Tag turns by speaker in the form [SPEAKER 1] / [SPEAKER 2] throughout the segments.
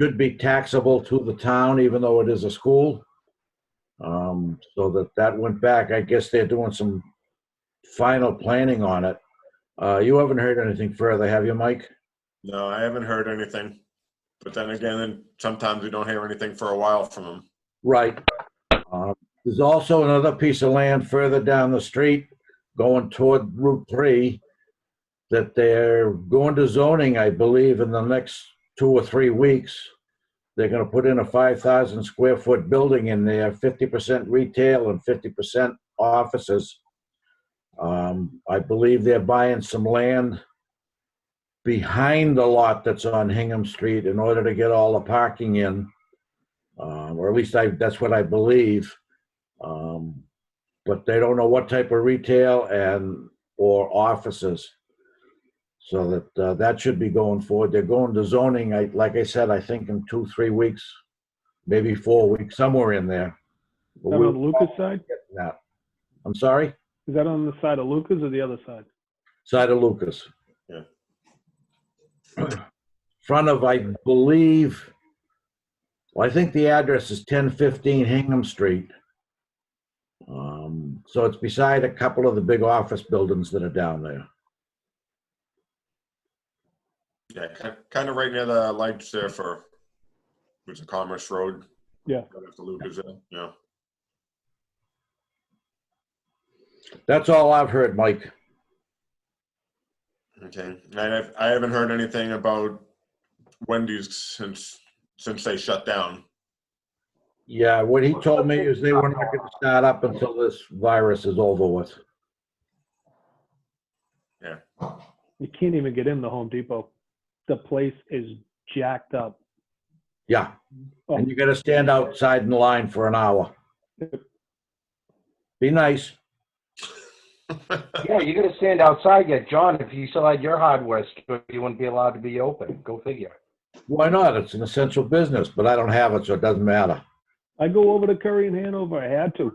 [SPEAKER 1] should be taxable to the town, even though it is a school. Um, so that, that went back, I guess they're doing some final planning on it. Uh, you haven't heard anything further, have you, Mike?
[SPEAKER 2] No, I haven't heard anything. But then again, sometimes we don't hear anything for a while from them.
[SPEAKER 1] Right. Uh, There's also another piece of land further down the street going toward Route 3 that they're going to zoning, I believe, in the next two or three weeks. They're going to put in a 5,000 square foot building in there, 50% retail and 50% offices. Um, I believe they're buying some land behind the lot that's on Hingham Street in order to get all the parking in um, or at least I, that's what I believe. Um, but they don't know what type of retail and, or offices. So that, uh, that should be going forward. They're going to zoning, I, like I said, I think in two, three weeks, maybe four weeks, somewhere in there. But
[SPEAKER 3] Is that on the
[SPEAKER 1] we'll
[SPEAKER 3] Lucas side?
[SPEAKER 1] get that. I'm sorry,
[SPEAKER 3] Is that on the side of Lucas or the other side?
[SPEAKER 1] side of Lucas.
[SPEAKER 2] Yeah.
[SPEAKER 1] Front of, I believe, Well, I think the address is ten fifteen Hingham Street. Um, so it's beside a couple of the big office buildings that are down there.
[SPEAKER 2] Yeah, kind of right near the lights there for, was it Commerce Road?
[SPEAKER 3] Yeah.
[SPEAKER 2] Right After Lucas, there, yeah.
[SPEAKER 1] That's all I've heard, Mike.
[SPEAKER 2] Okay, and I've, I haven't heard anything about Wendy's since, since they shut down.
[SPEAKER 1] Yeah, what he told me is they were not gonna start up until this virus is over with.
[SPEAKER 3] You can't even get in the Home Depot. The place is jacked up.
[SPEAKER 1] Yeah, and you gotta stand outside in line for an hour. Be nice.
[SPEAKER 4] Yeah, you're gonna stand outside yet, John. If you still had your hardware store, you wouldn't be allowed to be open. Go figure.
[SPEAKER 1] Why not? It's an essential business, but I don't have it, so it doesn't matter.
[SPEAKER 3] I go over to Curry and Hanover. I had to.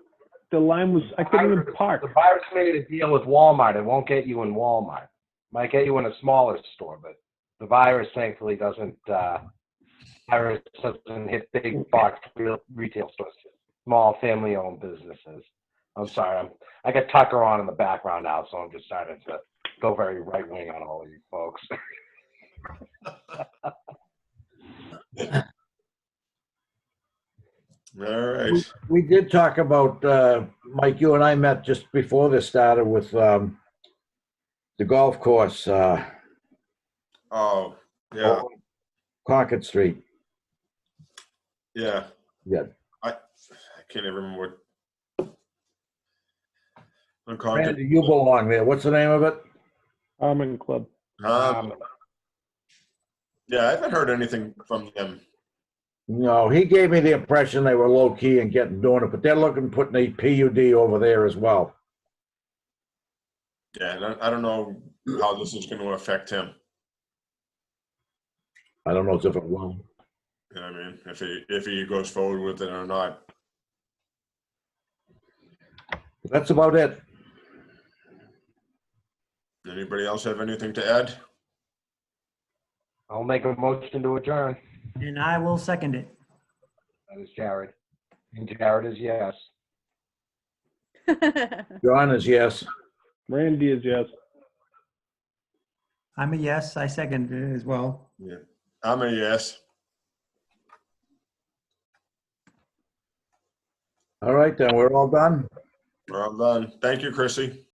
[SPEAKER 3] The line was, I couldn't even park.
[SPEAKER 4] The virus made a deal with Walmart. It won't get you in Walmart. Might get you in a smaller store, but the virus thankfully doesn't. Uh, virus doesn't hit big box real retail stores, small family-owned businesses. I'm sorry, I'm. I got Tucker on in the background now, so I'm just starting to go very right-wing on all of you folks.
[SPEAKER 2] All right.
[SPEAKER 1] We did talk about, uh, Mike, you and I met just before this started with um, the golf course, uh,
[SPEAKER 2] Oh, yeah,
[SPEAKER 1] Concord Street.
[SPEAKER 2] yeah.
[SPEAKER 1] Yeah.
[SPEAKER 2] I, I can't even remember what. I'm calling,
[SPEAKER 1] Randy, you belong there. What's the name of it?
[SPEAKER 3] Harmon Club.
[SPEAKER 2] um, yeah, I haven't heard anything from them.
[SPEAKER 1] No, he gave me the impression they were low key and getting doing it, but they're looking putting a PUD over there as well.
[SPEAKER 2] Yeah, and I, I don't know how this is gonna affect him.
[SPEAKER 1] I don't know if it will.
[SPEAKER 2] You know what I mean? If he, if he goes forward with it or not.
[SPEAKER 1] That's about it.
[SPEAKER 2] Anybody else have anything to add?
[SPEAKER 4] I'll make a motion to adjourn.
[SPEAKER 5] And I will second it.
[SPEAKER 4] That is Jared. And Jared is yes.
[SPEAKER 1] John is yes.
[SPEAKER 3] Randy is yes.
[SPEAKER 5] I'm a yes, I second it as well.
[SPEAKER 2] I'm a yes.
[SPEAKER 1] All right, then, we're all done.
[SPEAKER 2] We're all done. Thank you, Chrissy.